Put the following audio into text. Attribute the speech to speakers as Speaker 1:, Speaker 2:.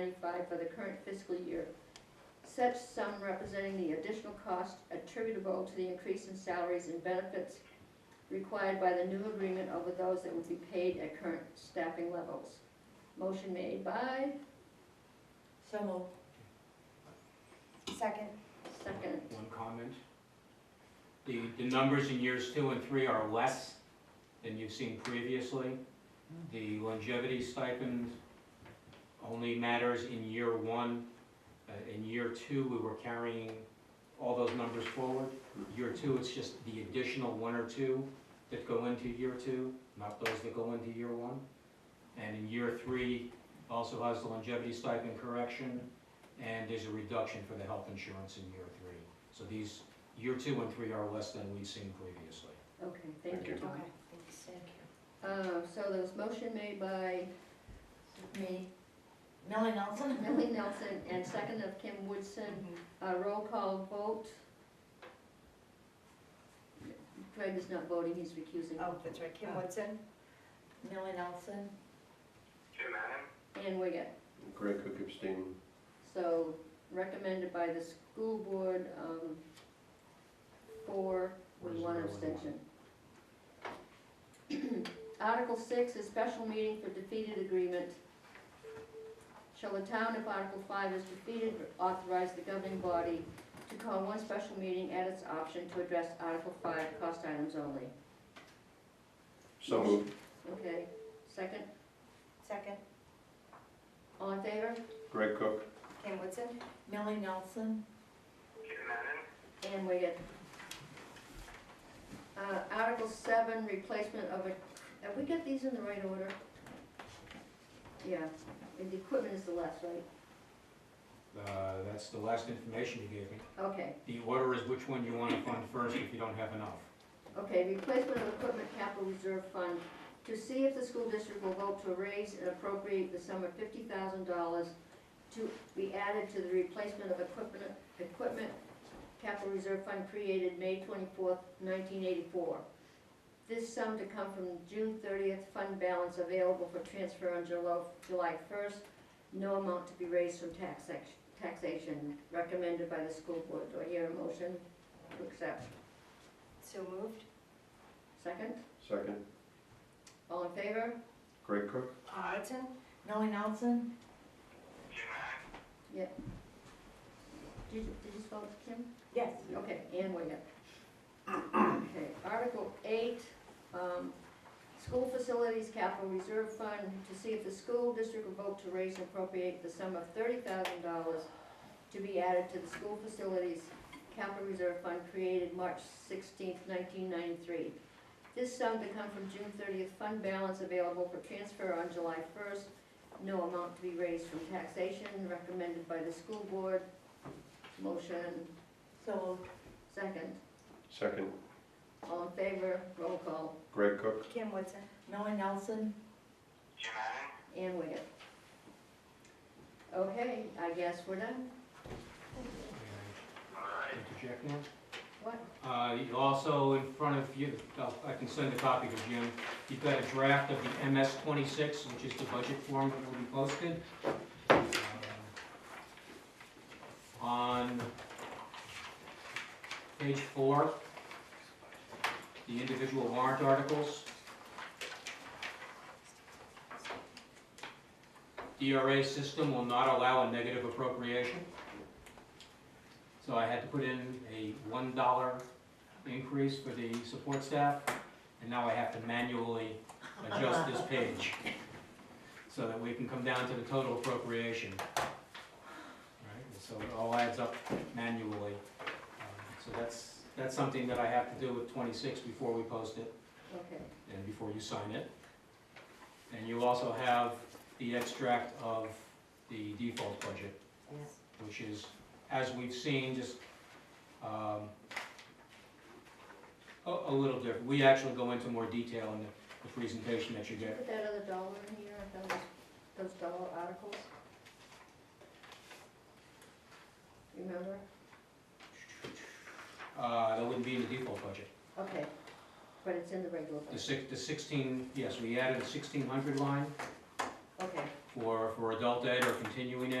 Speaker 1: provide for the current fiscal year, such sum representing the additional cost attributable to the increase in salaries and benefits required by the new agreement over those that would be paid at current staffing levels. Motion made by,
Speaker 2: So moved. Second.
Speaker 1: second.
Speaker 3: One comment. The, the numbers in years two and three are less than you've seen previously. The longevity stipend only matters in year one. Uh, In year two, we were carrying all those numbers forward. Year two, it's just the additional one or two that go into year two, not those that go into year one. And in year three, also has the longevity stipend correction, and there's a reduction for the health insurance in year three. So these, year two and three are less than we've seen previously.
Speaker 1: Okay, thank you,
Speaker 4: Thank
Speaker 1: Tom.
Speaker 2: thanks. Thank you.
Speaker 1: Uh, So there was motion made by
Speaker 2: Me. Millie Nelson?
Speaker 1: Millie Nelson and second of Kim Woodson.
Speaker 2: Mm-hmm.
Speaker 1: Uh, Roll call vote. Greg is not voting, he's recusing.
Speaker 2: Oh, that's right, Kim Woodson. Millie Nelson?
Speaker 5: Jim Adam,
Speaker 1: And Wiggett.
Speaker 4: Greg Cook abstaining.
Speaker 1: So recommended by the school board, um, four with one abstention. Article six is special meeting for defeated agreement. Shall the town, if Article five is defeated, authorize the governing body to call one special meeting at its option to address Article five cost items only?
Speaker 4: So moved.
Speaker 1: Okay, second,
Speaker 2: Second.
Speaker 1: all in favor?
Speaker 4: Greg Cook.
Speaker 2: Kim Woodson? Millie Nelson?
Speaker 5: Jim Adam,
Speaker 1: And we get uh, Article 7, replacement of a, have we got these in the right order? Yeah, and the equipment is the last, right?
Speaker 3: Uh, That's the last information you gave me.
Speaker 1: Okay,
Speaker 3: The order is which one you want to fund first if you don't have enough.
Speaker 1: okay, replacement of equipment capital reserve fund to see if the school district will vote to raise and appropriate the sum of $50,000 to be added to the replacement of equipment, equipment capital reserve fund created May 24th, 1984. This sum to come from June 30th fund balance available for transfer on July July 1st. No amount to be raised from tax sec- taxation recommended by the school board. Do I hear a motion to accept?
Speaker 2: So moved.
Speaker 1: Second?
Speaker 4: Second.
Speaker 1: All in favor?
Speaker 4: Greg Cook.
Speaker 2: Kim Woodson? Millie Nelson?
Speaker 5: Jim Adam,
Speaker 1: Did you did you spell it, Kim?
Speaker 2: Yes.
Speaker 1: Okay, and we got, okay, Article eight, um, School Facilities Capital Reserve Fund, to see if the school district will vote to raise and appropriate the sum of thirty thousand dollars to be added to the School Facilities Capital Reserve Fund created March sixteenth, nineteen ninety-three. This sum to come from June thirtieth fund balance available for transfer on July first. No amount to be raised from taxation recommended by the school board. Motion
Speaker 2: So moved.
Speaker 1: Second,
Speaker 4: Second.
Speaker 1: all in favor, roll call,
Speaker 4: Greg Cook.
Speaker 2: Kim Woodson? Millie Nelson?
Speaker 5: Jim Adam,
Speaker 1: and Wiggett. Okay, I guess we're done.
Speaker 3: May
Speaker 5: all right.
Speaker 3: I Interject now?
Speaker 1: What?
Speaker 3: Uh, you Also, in front of you, oh, I can send a copy to Jim, you've got a draft of the MS 26, which is the budget form that will be posted. Uh, On page four, the individual warrant articles. DRA system will not allow a negative appropriation. So I had to put in a one dollar increase for the support staff, and now I have to manually adjust this page so that we can come down to the total appropriation. All right, and So it all adds up manually. Um, So that's, that's something that I have to do with twenty-six before we post it
Speaker 1: Okay,
Speaker 3: and before you sign it. And you also have the extract of the default budget
Speaker 2: Yes.
Speaker 3: which is, as we've seen, just um, a a little different. We actually go into more detail in the the presentation that you
Speaker 1: did you
Speaker 3: get.
Speaker 1: put that other dollar in here, those, those dollar articles? Remember?
Speaker 3: Uh, That wouldn't be in the default budget.
Speaker 1: Okay, but it's in the regular
Speaker 3: The
Speaker 1: budget,
Speaker 3: six, the 16, yes, we added a 1600 line
Speaker 1: okay.
Speaker 3: for, for adult ed or continuing ed.